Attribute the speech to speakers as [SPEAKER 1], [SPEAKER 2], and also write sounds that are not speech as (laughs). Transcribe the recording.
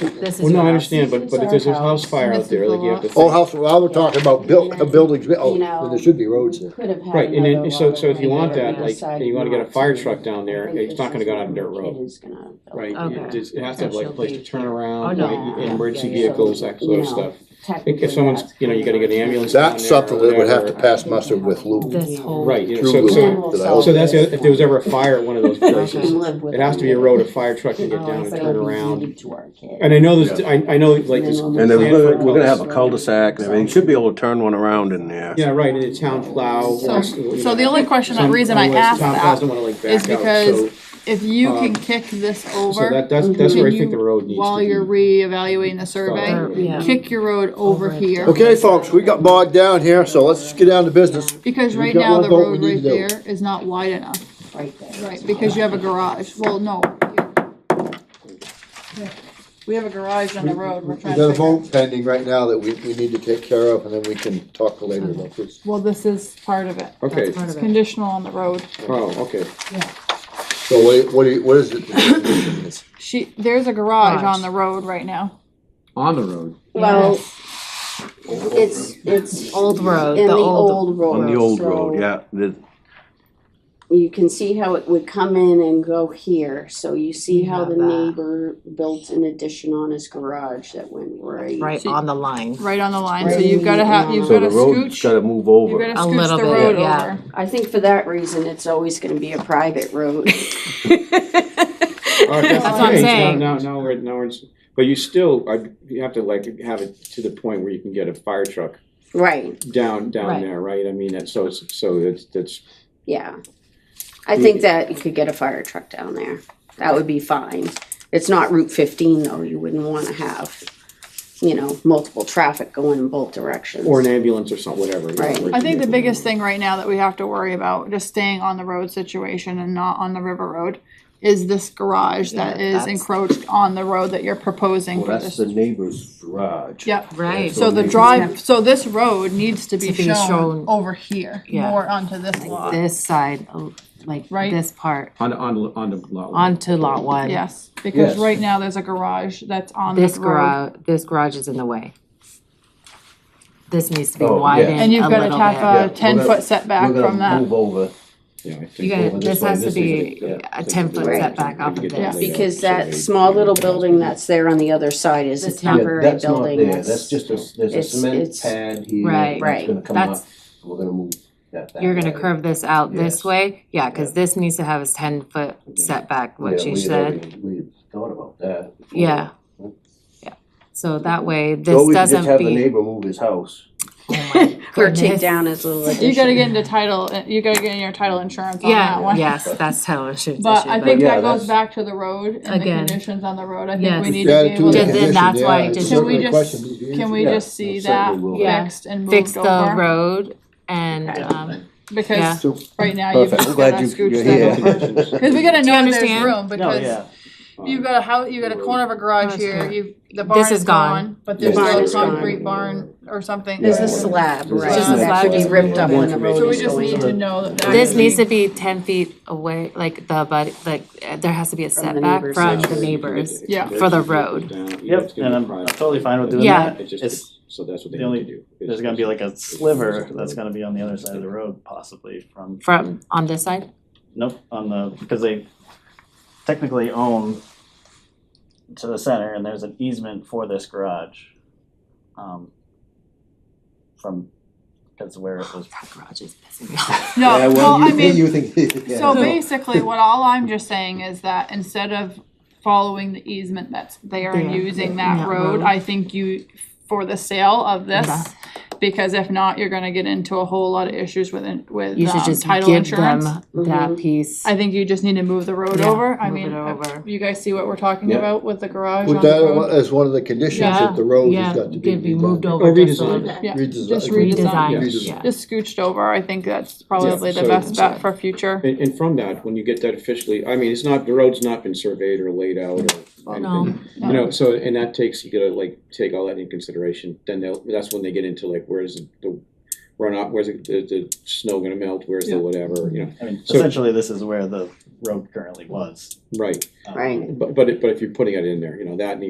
[SPEAKER 1] This is
[SPEAKER 2] Well, no,
[SPEAKER 1] your
[SPEAKER 2] I
[SPEAKER 1] house.
[SPEAKER 2] understand, but,
[SPEAKER 3] This
[SPEAKER 2] but
[SPEAKER 3] is
[SPEAKER 2] if there's a
[SPEAKER 3] our
[SPEAKER 2] house
[SPEAKER 3] house.
[SPEAKER 2] fire out
[SPEAKER 1] This
[SPEAKER 2] there,
[SPEAKER 1] is
[SPEAKER 2] like
[SPEAKER 1] the
[SPEAKER 2] you have to.
[SPEAKER 1] lot.
[SPEAKER 4] Oh, house, well, we're talking about built, uh, buildings, built-
[SPEAKER 3] You
[SPEAKER 4] oh,
[SPEAKER 3] know,
[SPEAKER 4] there should be roads
[SPEAKER 3] we
[SPEAKER 4] there.
[SPEAKER 3] Could have had.
[SPEAKER 2] Right, and
[SPEAKER 3] another
[SPEAKER 2] then, so,
[SPEAKER 3] water
[SPEAKER 2] so if you
[SPEAKER 3] line
[SPEAKER 2] want
[SPEAKER 3] or
[SPEAKER 2] that,
[SPEAKER 3] a
[SPEAKER 2] like,
[SPEAKER 3] side
[SPEAKER 2] and you wanna get a fire
[SPEAKER 3] lot.
[SPEAKER 2] truck down there,
[SPEAKER 3] I think
[SPEAKER 2] it's
[SPEAKER 3] this
[SPEAKER 2] not gonna
[SPEAKER 3] is
[SPEAKER 2] go down a dirt
[SPEAKER 3] where It
[SPEAKER 2] road,
[SPEAKER 3] is gonna.
[SPEAKER 2] right?
[SPEAKER 1] Okay.
[SPEAKER 2] It just- It has to have like a
[SPEAKER 1] That
[SPEAKER 2] place
[SPEAKER 1] should
[SPEAKER 2] to
[SPEAKER 1] be-
[SPEAKER 2] turn
[SPEAKER 1] Oh,
[SPEAKER 2] around,
[SPEAKER 1] no.
[SPEAKER 2] like,
[SPEAKER 3] Yeah,
[SPEAKER 2] and emergency
[SPEAKER 3] yeah, yeah.
[SPEAKER 2] vehicles, that sort
[SPEAKER 3] No,
[SPEAKER 2] of stuff. If
[SPEAKER 3] Technically,
[SPEAKER 2] if someone's,
[SPEAKER 3] that's
[SPEAKER 2] you know, you gotta get an
[SPEAKER 3] kinda-
[SPEAKER 2] ambulance down there.
[SPEAKER 4] That's something that would have to
[SPEAKER 2] whatever.
[SPEAKER 4] pass muster with Lou.
[SPEAKER 1] This whole-
[SPEAKER 2] Right, you know,
[SPEAKER 4] Through
[SPEAKER 2] so, so,
[SPEAKER 4] Lou, did I
[SPEAKER 3] So-
[SPEAKER 4] also-
[SPEAKER 2] so that's, the other- if there was ever a fire at one of those places,
[SPEAKER 3] Can live with
[SPEAKER 2] it has to be a
[SPEAKER 3] it.
[SPEAKER 2] road a fire truck can get
[SPEAKER 1] Oh,
[SPEAKER 2] down and
[SPEAKER 1] so
[SPEAKER 3] But
[SPEAKER 2] turn
[SPEAKER 3] it'll be
[SPEAKER 2] around.
[SPEAKER 3] deeded to our kid.
[SPEAKER 2] And I know this, I, I know like this.
[SPEAKER 3] And
[SPEAKER 5] And then we're
[SPEAKER 2] plan
[SPEAKER 5] gonna,
[SPEAKER 2] for
[SPEAKER 5] we're gonna have
[SPEAKER 2] cul-de-sac.
[SPEAKER 5] a cul-de-sac and everything, should be able to turn one around in there.
[SPEAKER 2] Yeah, right, and the town plow.
[SPEAKER 6] So,
[SPEAKER 2] wants to, you
[SPEAKER 6] so
[SPEAKER 2] know,
[SPEAKER 6] the only question, the
[SPEAKER 2] some-
[SPEAKER 6] reason I
[SPEAKER 2] otherwise
[SPEAKER 6] asked
[SPEAKER 2] Town plows
[SPEAKER 6] that,
[SPEAKER 2] don't wanna like back
[SPEAKER 6] is
[SPEAKER 2] out,
[SPEAKER 6] because
[SPEAKER 2] so-
[SPEAKER 6] if you can
[SPEAKER 2] um,
[SPEAKER 6] kick this
[SPEAKER 2] So
[SPEAKER 6] over,
[SPEAKER 2] that, that's, that's where I think the road needs to be.
[SPEAKER 6] while you're reevaluating the survey,
[SPEAKER 1] Or- Yeah.
[SPEAKER 6] kick your road over
[SPEAKER 1] Over.
[SPEAKER 6] here.
[SPEAKER 4] Okay, folks, we got bogged down here, so let's get down to business.
[SPEAKER 6] Because
[SPEAKER 4] We've
[SPEAKER 6] right
[SPEAKER 4] got
[SPEAKER 6] now,
[SPEAKER 4] one
[SPEAKER 6] the
[SPEAKER 4] vote we
[SPEAKER 6] road
[SPEAKER 4] need
[SPEAKER 6] right
[SPEAKER 4] to do.
[SPEAKER 6] there is not wide enough,
[SPEAKER 3] Right there.
[SPEAKER 6] right, because you have a garage, well, no. We have a garage on the road, we're
[SPEAKER 4] We've
[SPEAKER 6] trying
[SPEAKER 4] got
[SPEAKER 6] to
[SPEAKER 4] a
[SPEAKER 6] figure.
[SPEAKER 4] vote pending right now that we, we need to take care of, and then we can talk later about this.
[SPEAKER 6] Well, this is part of it,
[SPEAKER 2] Okay,
[SPEAKER 1] That's part
[SPEAKER 6] it's
[SPEAKER 1] of it.
[SPEAKER 6] conditional on the road.
[SPEAKER 2] oh, okay.
[SPEAKER 4] So what, what do you, what is it? that the resolution is?
[SPEAKER 6] She, there's a garage
[SPEAKER 1] Garage.
[SPEAKER 6] on the road right now.
[SPEAKER 2] On the road.
[SPEAKER 3] Well, it's, it's
[SPEAKER 1] Old road,
[SPEAKER 3] in
[SPEAKER 1] uh, the
[SPEAKER 3] the
[SPEAKER 1] old.
[SPEAKER 3] old road.
[SPEAKER 5] On the old road,
[SPEAKER 3] so
[SPEAKER 5] yeah, the,
[SPEAKER 3] You can see how it would come in and go here, so you see
[SPEAKER 1] You
[SPEAKER 3] how
[SPEAKER 1] have
[SPEAKER 3] the
[SPEAKER 1] that.
[SPEAKER 3] neighbor built an addition on his garage that went right.
[SPEAKER 1] Right on the line.
[SPEAKER 6] right on the line, so
[SPEAKER 3] Right.
[SPEAKER 6] you've gotta have, you've
[SPEAKER 5] so
[SPEAKER 6] gotta
[SPEAKER 5] the road's
[SPEAKER 6] scooch,
[SPEAKER 5] gotta move
[SPEAKER 6] you've
[SPEAKER 5] over.
[SPEAKER 6] gotta
[SPEAKER 1] A little
[SPEAKER 6] scooch the
[SPEAKER 1] bit,
[SPEAKER 6] road
[SPEAKER 1] yeah.
[SPEAKER 6] over.
[SPEAKER 3] I think for that reason, it's always gonna be a private road.
[SPEAKER 2] That's
[SPEAKER 1] what I'm
[SPEAKER 2] okay.
[SPEAKER 1] saying.
[SPEAKER 2] Now, now, now we're, now we're, but you still, I, you have to like have it to the point where you can get a fire truck
[SPEAKER 3] Right,
[SPEAKER 2] down, down
[SPEAKER 1] Right.
[SPEAKER 2] there, right? I mean, that's, so, it's- so that's, that's,
[SPEAKER 3] yeah. I think that you could get a fire truck down there. That would be fine. It's not Route fifteen though, you wouldn't wanna have, you know, multiple traffic going in both directions.
[SPEAKER 2] or an ambulance or something, whatever. you know,
[SPEAKER 3] Right.
[SPEAKER 2] where it
[SPEAKER 6] I
[SPEAKER 2] can
[SPEAKER 6] think
[SPEAKER 2] get
[SPEAKER 6] the
[SPEAKER 2] from
[SPEAKER 6] biggest thing right now that we have to worry about, just staying on the road situation and not on the river road, is this garage that
[SPEAKER 1] Yeah,
[SPEAKER 6] is
[SPEAKER 1] that's-
[SPEAKER 6] encroached on the road that you're proposing
[SPEAKER 5] Well,
[SPEAKER 6] for
[SPEAKER 5] that's
[SPEAKER 6] this.
[SPEAKER 5] the neighbor's garage.
[SPEAKER 6] Yep,
[SPEAKER 1] Right.
[SPEAKER 6] so the
[SPEAKER 5] maybe-
[SPEAKER 6] drive, so this road needs to be
[SPEAKER 1] To be
[SPEAKER 6] shown
[SPEAKER 1] shown-
[SPEAKER 6] over here,
[SPEAKER 1] Yeah.
[SPEAKER 6] more onto this lot,
[SPEAKER 1] This side, oh, like
[SPEAKER 6] Right.
[SPEAKER 1] this part,
[SPEAKER 7] On, on, on the lot. line.
[SPEAKER 1] onto lot one.
[SPEAKER 6] yes, because
[SPEAKER 5] Yes.
[SPEAKER 6] right now there's a garage that's on
[SPEAKER 1] This
[SPEAKER 6] this road.
[SPEAKER 1] garage, this garage is in the way. This needs to be
[SPEAKER 5] Oh, yeah.
[SPEAKER 1] widened
[SPEAKER 6] And you've
[SPEAKER 1] a
[SPEAKER 6] gotta
[SPEAKER 1] little
[SPEAKER 5] Yeah, we're
[SPEAKER 6] have a
[SPEAKER 5] gonna-
[SPEAKER 6] ten-foot setback
[SPEAKER 5] We're gonna
[SPEAKER 6] from that,
[SPEAKER 5] Move over.
[SPEAKER 2] Yeah, I think
[SPEAKER 1] You gotta,
[SPEAKER 5] over this
[SPEAKER 1] this
[SPEAKER 5] way,
[SPEAKER 1] has to
[SPEAKER 5] this is
[SPEAKER 1] be
[SPEAKER 5] it, yeah.
[SPEAKER 1] a ten foot
[SPEAKER 3] Right.
[SPEAKER 1] setback off of
[SPEAKER 2] Yeah.
[SPEAKER 1] this.
[SPEAKER 3] Because that small little building that's there on the other side is a
[SPEAKER 1] It's not-
[SPEAKER 5] Yeah,
[SPEAKER 3] temporary
[SPEAKER 5] that's not
[SPEAKER 3] building.
[SPEAKER 5] there.
[SPEAKER 3] that's-
[SPEAKER 5] That's just a, there's a
[SPEAKER 3] it's-
[SPEAKER 5] cement
[SPEAKER 3] it's-
[SPEAKER 5] pad here.
[SPEAKER 1] Right.
[SPEAKER 3] Right.
[SPEAKER 5] It's gonna come
[SPEAKER 1] That's-
[SPEAKER 5] up, we're gonna move that. that
[SPEAKER 1] You're gonna
[SPEAKER 5] way.
[SPEAKER 1] curve this out this
[SPEAKER 5] Yes.
[SPEAKER 1] way? Yeah, cause this needs to have a ten foot setback, what
[SPEAKER 5] Yeah,
[SPEAKER 1] she
[SPEAKER 5] we had
[SPEAKER 1] said.
[SPEAKER 5] already- We had thought about that. before.
[SPEAKER 1] Yeah. Yeah. So that way,
[SPEAKER 5] So
[SPEAKER 1] this
[SPEAKER 5] we could just
[SPEAKER 1] doesn't (laughs)
[SPEAKER 5] have the
[SPEAKER 1] be. Oh
[SPEAKER 5] neighbor move his house.
[SPEAKER 3] Or take
[SPEAKER 1] goodness.
[SPEAKER 3] down his little
[SPEAKER 6] you
[SPEAKER 3] addition.
[SPEAKER 6] gotta get into title, you gotta get in your title insurance on that
[SPEAKER 1] Yeah,
[SPEAKER 6] one.
[SPEAKER 1] yes, that's how it should.
[SPEAKER 6] But I think
[SPEAKER 5] Yeah,
[SPEAKER 6] that
[SPEAKER 5] that's-
[SPEAKER 6] goes back to the road and the
[SPEAKER 1] Again.
[SPEAKER 6] conditions on the road, I
[SPEAKER 1] Yes.
[SPEAKER 6] think we need
[SPEAKER 4] Yeah,
[SPEAKER 6] to be
[SPEAKER 4] to
[SPEAKER 6] able
[SPEAKER 4] the
[SPEAKER 1] Yeah,
[SPEAKER 6] to,
[SPEAKER 1] then
[SPEAKER 4] condition,
[SPEAKER 1] that's
[SPEAKER 4] yeah,
[SPEAKER 1] why it
[SPEAKER 4] it's
[SPEAKER 1] just-
[SPEAKER 6] Can we
[SPEAKER 4] really a
[SPEAKER 6] just-
[SPEAKER 4] question these days.
[SPEAKER 6] can we
[SPEAKER 5] Yeah,
[SPEAKER 6] just see
[SPEAKER 5] that's
[SPEAKER 6] that
[SPEAKER 5] certainly will.
[SPEAKER 1] Yeah.
[SPEAKER 6] fixed and
[SPEAKER 1] Fix
[SPEAKER 6] moved
[SPEAKER 1] the
[SPEAKER 6] over?
[SPEAKER 1] road and, um, yeah.
[SPEAKER 6] Because
[SPEAKER 5] So-
[SPEAKER 6] right now you've
[SPEAKER 5] Perfect.
[SPEAKER 6] just
[SPEAKER 5] Glad
[SPEAKER 6] gotta
[SPEAKER 5] you-
[SPEAKER 6] scooch
[SPEAKER 5] you're
[SPEAKER 6] that
[SPEAKER 5] here.
[SPEAKER 2] (laughs)
[SPEAKER 6] over. (laughs) Cause we
[SPEAKER 3] (laughs)
[SPEAKER 6] gotta
[SPEAKER 1] Do you
[SPEAKER 6] know there's
[SPEAKER 1] understand?
[SPEAKER 6] room, because
[SPEAKER 5] yeah.
[SPEAKER 6] you've got a house, you've got a corner of a garage
[SPEAKER 1] Garage
[SPEAKER 6] here,
[SPEAKER 1] here.
[SPEAKER 6] you, the barn
[SPEAKER 1] This is
[SPEAKER 6] is
[SPEAKER 1] gone.
[SPEAKER 6] gone, but there's
[SPEAKER 3] Yes.
[SPEAKER 6] still
[SPEAKER 3] Barn
[SPEAKER 6] a
[SPEAKER 3] is gone.
[SPEAKER 6] concrete barn or something.
[SPEAKER 3] There's a
[SPEAKER 6] there.
[SPEAKER 3] slab,
[SPEAKER 5] There's
[SPEAKER 3] right?
[SPEAKER 5] a
[SPEAKER 6] slab.
[SPEAKER 3] That could be ripped up when the
[SPEAKER 6] So
[SPEAKER 3] road
[SPEAKER 6] we
[SPEAKER 3] is
[SPEAKER 6] just need
[SPEAKER 3] going
[SPEAKER 6] to
[SPEAKER 3] in.
[SPEAKER 6] know that. that
[SPEAKER 1] This
[SPEAKER 6] is-
[SPEAKER 1] needs to be ten feet away, like the, but, like, uh, there has to be a
[SPEAKER 3] From the
[SPEAKER 1] setback
[SPEAKER 3] neighbors.
[SPEAKER 1] from
[SPEAKER 2] Yeah,
[SPEAKER 1] the
[SPEAKER 2] you can get
[SPEAKER 1] neighbors.
[SPEAKER 2] the-
[SPEAKER 6] Yeah.
[SPEAKER 1] For the road.
[SPEAKER 2] Down, you know,
[SPEAKER 8] Yep,
[SPEAKER 2] it's gonna
[SPEAKER 8] and
[SPEAKER 2] be
[SPEAKER 8] I'm
[SPEAKER 2] private.
[SPEAKER 8] totally fine with doing
[SPEAKER 1] Yeah.
[SPEAKER 8] that.
[SPEAKER 2] It just-
[SPEAKER 8] It's,
[SPEAKER 2] So that's what they
[SPEAKER 8] the only-
[SPEAKER 2] need to do.
[SPEAKER 8] there's gonna be like a sliver that's gonna be on the other side of the road possibly from,
[SPEAKER 1] From, on this side?
[SPEAKER 8] nope, on the, because they technically own to the center and there's an easement for this garage. Um, From, because where it was,
[SPEAKER 1] That garage is pissing me off.
[SPEAKER 6] No, well, I
[SPEAKER 5] (laughs)
[SPEAKER 6] mean.
[SPEAKER 5] You think. (laughs) yeah.
[SPEAKER 6] So basically, what all I'm just saying is that instead of following the easement that's there and
[SPEAKER 1] There,
[SPEAKER 6] using that
[SPEAKER 1] that
[SPEAKER 6] road,
[SPEAKER 1] road.
[SPEAKER 6] I think you, for the sale of
[SPEAKER 1] Okay.
[SPEAKER 6] this, because if not, you're gonna get into a whole lot of issues with, in- with
[SPEAKER 1] You should
[SPEAKER 6] um,
[SPEAKER 1] just
[SPEAKER 6] title
[SPEAKER 1] give them
[SPEAKER 6] insurance.
[SPEAKER 3] Mm-hmm.
[SPEAKER 1] that piece.
[SPEAKER 6] I think you just need to move the road
[SPEAKER 1] Yeah,
[SPEAKER 6] over. I
[SPEAKER 1] move it
[SPEAKER 6] mean,
[SPEAKER 1] over.
[SPEAKER 6] you guys see what we're talking
[SPEAKER 5] Yeah.
[SPEAKER 6] about with the garage on
[SPEAKER 4] Put
[SPEAKER 6] the
[SPEAKER 4] that uh,
[SPEAKER 6] road?
[SPEAKER 4] as one of the conditions that the road has got to be.
[SPEAKER 1] Could be moved
[SPEAKER 4] redone.
[SPEAKER 1] over
[SPEAKER 2] Or
[SPEAKER 1] just a
[SPEAKER 2] redesigned.
[SPEAKER 1] little bit.
[SPEAKER 6] Yeah,
[SPEAKER 4] Redesi-
[SPEAKER 6] just
[SPEAKER 1] Redesigned,
[SPEAKER 2] Redesign.
[SPEAKER 1] yeah.
[SPEAKER 6] Just scooched over. I think that's probably the
[SPEAKER 2] so-
[SPEAKER 6] best bet for future.
[SPEAKER 2] And, and from that, when you get that officially, I mean, it's not, the road's not been surveyed or laid out or
[SPEAKER 1] No.
[SPEAKER 2] anything. You know, so, and that takes, you gotta like, take all that into consideration, then they'll, that's when they get into like, where's the runoff, where's the, the, the snow gonna melt, where's the
[SPEAKER 8] Yeah.
[SPEAKER 2] whatever, you know,
[SPEAKER 8] I mean,
[SPEAKER 2] So-
[SPEAKER 8] essentially this is where the road currently was.
[SPEAKER 2] right.
[SPEAKER 8] Um,
[SPEAKER 3] Right.
[SPEAKER 2] But, but, it- but if you're putting it in there, you know, that and the